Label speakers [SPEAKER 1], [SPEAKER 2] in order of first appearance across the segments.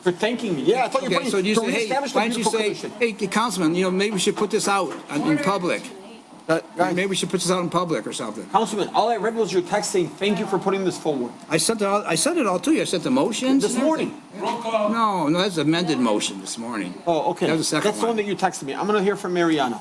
[SPEAKER 1] For thanking me, yeah, I thought you were
[SPEAKER 2] Okay, so
[SPEAKER 1] putting,
[SPEAKER 2] you
[SPEAKER 1] to
[SPEAKER 2] say, hey,
[SPEAKER 1] reestablish the
[SPEAKER 2] why don't you
[SPEAKER 1] beautiful
[SPEAKER 2] say,
[SPEAKER 1] commission.
[SPEAKER 2] hey, Councilman, you know, maybe we should put this out in- in public.
[SPEAKER 1] Uh, guys,
[SPEAKER 2] Maybe we should put this out in public or something.
[SPEAKER 1] Councilman, all I read was your text saying, thank you for putting this forward.
[SPEAKER 2] I sent it all, I sent it all to you. I sent the motions.
[SPEAKER 1] This
[SPEAKER 2] and everything.
[SPEAKER 1] morning.
[SPEAKER 2] No, no, that's amended motion this morning.
[SPEAKER 1] Oh, okay.
[SPEAKER 2] That was the second
[SPEAKER 1] That's the one
[SPEAKER 2] one.
[SPEAKER 1] that you texted me. I'm gonna hear from Mariana.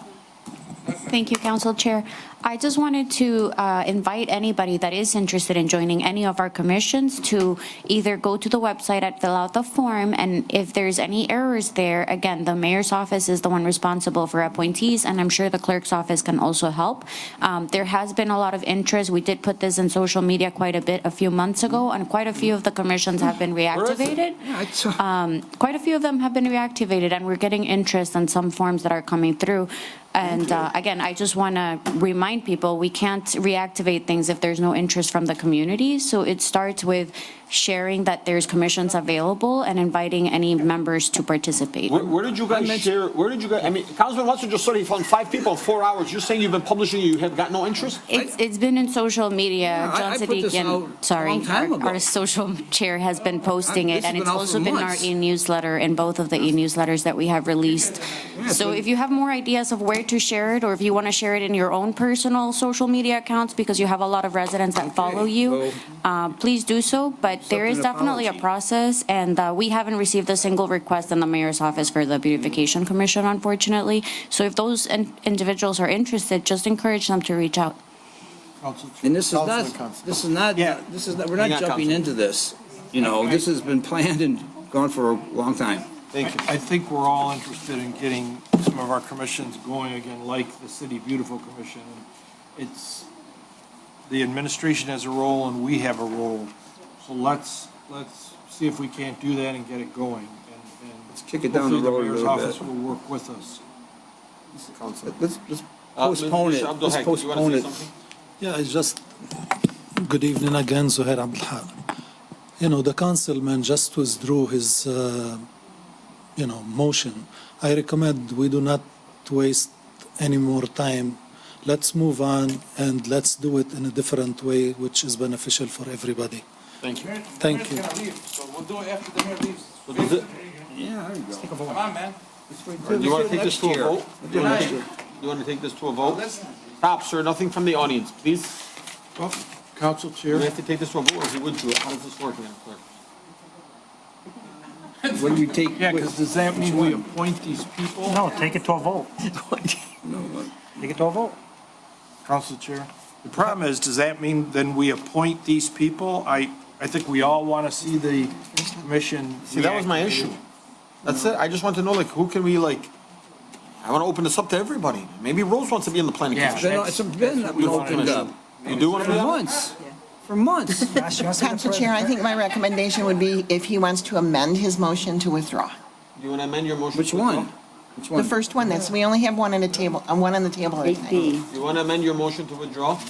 [SPEAKER 3] Thank you, Council Chair. I just wanted to uh, invite anybody that is interested in joining any of our commissions to either go to the website and fill out the form, and if there's any errors there, again, the mayor's office is the one responsible for appointees, and I'm sure the clerk's office can also help. Um, There has been a lot of interest. We did put this in social media quite a bit a few months ago, and quite a few of the commissions have been
[SPEAKER 1] is it?
[SPEAKER 3] reactivated.
[SPEAKER 2] Yeah, it's, uh,
[SPEAKER 3] Um, Quite a few of them have been reactivated, and we're getting interest on some forms that are coming through. And uh, again, I just want to remind people, we can't reactivate things if there's no interest from the community. So it starts with sharing that there's commissions available and inviting any members to participate.
[SPEAKER 1] Where, where did you guys share, where did you guys, I mean, Councilman Wetzel just said he found five people in four hours. You're saying you've been publishing, you have got no interest?
[SPEAKER 3] It's, it's been in social media.
[SPEAKER 2] Yeah, I- I
[SPEAKER 3] John
[SPEAKER 2] put this out
[SPEAKER 3] Sadikian,
[SPEAKER 2] a
[SPEAKER 3] sorry,
[SPEAKER 2] long time
[SPEAKER 3] our
[SPEAKER 2] ago. Oh,
[SPEAKER 3] our social chair has been posting
[SPEAKER 2] I-
[SPEAKER 3] it,
[SPEAKER 2] this
[SPEAKER 3] and
[SPEAKER 2] has been
[SPEAKER 3] it's
[SPEAKER 2] out for
[SPEAKER 3] also been our
[SPEAKER 2] months.
[SPEAKER 3] e-newsletter, in both of the e-newsletters that we have released.
[SPEAKER 2] it's
[SPEAKER 3] So
[SPEAKER 2] been-
[SPEAKER 3] if you have more ideas of where to share it, or if you want to share it in your own personal social media accounts, because you have a lot of residents that follow you,
[SPEAKER 2] well-
[SPEAKER 3] uh, please do so, but there is
[SPEAKER 2] an
[SPEAKER 3] definitely a
[SPEAKER 2] apology.
[SPEAKER 3] process, and uh, we haven't received a single request in the mayor's office for the beautification commission, unfortunately. So if those in- individuals are interested, just encourage them to reach out.
[SPEAKER 2] And this is
[SPEAKER 1] Councilman
[SPEAKER 2] not,
[SPEAKER 1] Constable.
[SPEAKER 2] this is not,
[SPEAKER 1] Yeah.
[SPEAKER 2] this is, not. we're
[SPEAKER 1] Hang on,
[SPEAKER 2] not jumping
[SPEAKER 1] Councilman.
[SPEAKER 2] into this. You know, this has been planned and gone for a long time.
[SPEAKER 1] Thank you.
[SPEAKER 4] I think we're all interested in getting some of our commissions going again, like the City Beautiful Commission. It's, the administration has a role and we have a role. So let's, let's see if we can't do that and get it going. And- and
[SPEAKER 2] Let's kick it down the road a
[SPEAKER 4] Hopefully the mayor's
[SPEAKER 2] little bit.
[SPEAKER 4] office will work with us.
[SPEAKER 2] Let's, let's
[SPEAKER 1] Uh, Ms.
[SPEAKER 2] postpone it.
[SPEAKER 1] Abdul
[SPEAKER 2] Let's
[SPEAKER 1] Haq, you wanna
[SPEAKER 2] postpone
[SPEAKER 1] say
[SPEAKER 2] it.
[SPEAKER 1] something?
[SPEAKER 5] Yeah, it's just, good evening again, Zuhair Abdulhaq. You know, the councilman just withdrew his, uh, you know, motion. I recommend we do not waste any more time. Let's move on and let's do it in a different way, which is beneficial for everybody.
[SPEAKER 1] Thank you.
[SPEAKER 5] Thank you.
[SPEAKER 6] So we'll do it after the mayor leaves.
[SPEAKER 1] does it-
[SPEAKER 2] Yeah, there you go.
[SPEAKER 6] Come on, man.
[SPEAKER 1] Do you wanna take this to a vote? Do you wanna
[SPEAKER 6] Next
[SPEAKER 1] take-
[SPEAKER 6] year.
[SPEAKER 1] you wanna take this to a vote? Stop, sir, nothing from the audience, please.
[SPEAKER 4] Well, Council
[SPEAKER 1] Do
[SPEAKER 4] Chair?
[SPEAKER 1] we have to take this to a vote or he would do it? How does this work, Madam Clerk?
[SPEAKER 2] What do you take?
[SPEAKER 4] Yeah, because does that mean we appoint these people?
[SPEAKER 7] No, take it to a vote. Take it to a vote.
[SPEAKER 4] Council Chair. The problem is, does that mean then we appoint these people? I, I think we all want to see the commission.
[SPEAKER 1] See, that was my issue. That's it. I just want to know, like, who can we, like, I wanna open this up to everybody. Maybe Rose wants to be in the planning
[SPEAKER 4] Yeah.
[SPEAKER 1] commission.
[SPEAKER 2] Then It's been opened up
[SPEAKER 1] You do wanna
[SPEAKER 2] for
[SPEAKER 1] be on it?
[SPEAKER 2] months, for months.
[SPEAKER 7] Gosh, you want to
[SPEAKER 8] Council
[SPEAKER 7] say-
[SPEAKER 8] Chair, I think my recommendation would be if he wants to amend his motion to withdraw.
[SPEAKER 1] Do you wanna amend your motion?
[SPEAKER 2] Which
[SPEAKER 1] to withdraw?
[SPEAKER 2] one? Which
[SPEAKER 8] The
[SPEAKER 2] one?
[SPEAKER 8] first one, that's, we only have one on the table, uh, one on the table at a time.
[SPEAKER 1] You wanna amend your motion to withdraw?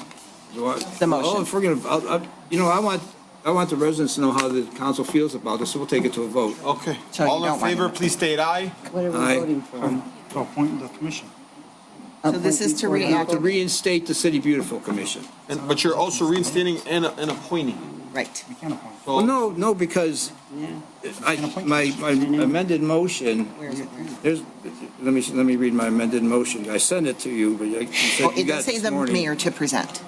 [SPEAKER 2] Do I-
[SPEAKER 8] The motion.
[SPEAKER 2] Oh, if we're gonna, I'll- I'll- you know, I want, I want the residents to know how the council feels about this, so we'll take it to a vote.
[SPEAKER 1] Okay.
[SPEAKER 8] So you
[SPEAKER 1] All in
[SPEAKER 8] don't want
[SPEAKER 1] favor,
[SPEAKER 8] it.
[SPEAKER 1] please state aye.
[SPEAKER 9] What are we
[SPEAKER 2] Aye.
[SPEAKER 9] voting for?
[SPEAKER 7] To appoint the commission.
[SPEAKER 8] So this is to
[SPEAKER 2] Now
[SPEAKER 8] react,
[SPEAKER 2] to reinstate the City Beautiful Commission.
[SPEAKER 1] And, but you're also reinstating and, and appointing.
[SPEAKER 8] right.
[SPEAKER 7] We can't appoint.
[SPEAKER 2] Well, no, no, because I, my my amended motion,
[SPEAKER 8] Where is it? Where is it?
[SPEAKER 2] there's, let me, let me read my amended motion. I sent it to you, but you
[SPEAKER 8] Oh,
[SPEAKER 2] said you
[SPEAKER 8] It
[SPEAKER 2] got
[SPEAKER 8] does
[SPEAKER 2] it
[SPEAKER 8] say
[SPEAKER 2] this
[SPEAKER 8] the
[SPEAKER 2] morning.
[SPEAKER 8] mayor to present,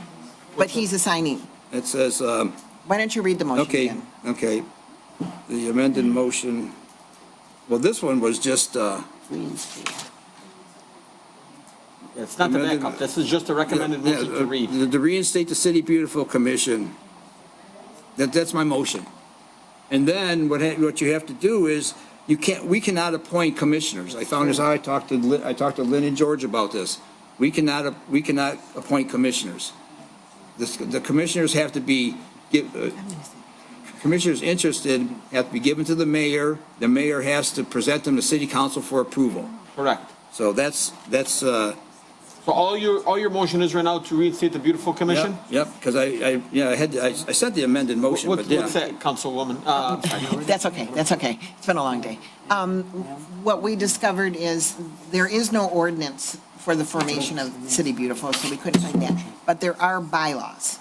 [SPEAKER 8] but he's assigning.
[SPEAKER 2] It says, um,
[SPEAKER 8] Why don't you read the motion
[SPEAKER 2] Okay,
[SPEAKER 8] again?
[SPEAKER 2] okay. The amended motion, well, this one was just, uh,
[SPEAKER 1] It's not the
[SPEAKER 2] Amended-
[SPEAKER 1] backup. This is just a recommended
[SPEAKER 2] yeah,
[SPEAKER 1] motion
[SPEAKER 2] uh,
[SPEAKER 1] to read.
[SPEAKER 2] To reinstate the City Beautiful Commission. That, that's my motion. And then what, ha- what you have to do is, you can't, we cannot appoint commissioners. I found this, out. I talked to, Lin- I talked to Lynn and George about this. We cannot, ap- we cannot appoint commissioners. This, the commissioners have to be, give, uh, commissioners interested have to be given to the mayor. The mayor has to present them to city council for approval.
[SPEAKER 1] Correct.
[SPEAKER 2] So that's, that's, uh,
[SPEAKER 1] So all your, all your motion is right now to reinstate the beautiful commission?
[SPEAKER 2] Yep, Yep, because I, I, yeah, I had, I I sent the amended motion,
[SPEAKER 1] What,
[SPEAKER 2] but yeah.
[SPEAKER 1] what's that, Councilwoman? Uh, I'm sorry.
[SPEAKER 8] That's okay, that's okay. It's been a long day. Um, What we discovered is there is no ordinance for the formation of City Beautiful, so we couldn't find that. But there are bylaws.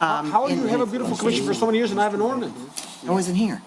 [SPEAKER 1] How how do you
[SPEAKER 8] in-
[SPEAKER 1] have a beautiful commission for so many years and I have an ordinance?
[SPEAKER 8] I wasn't here.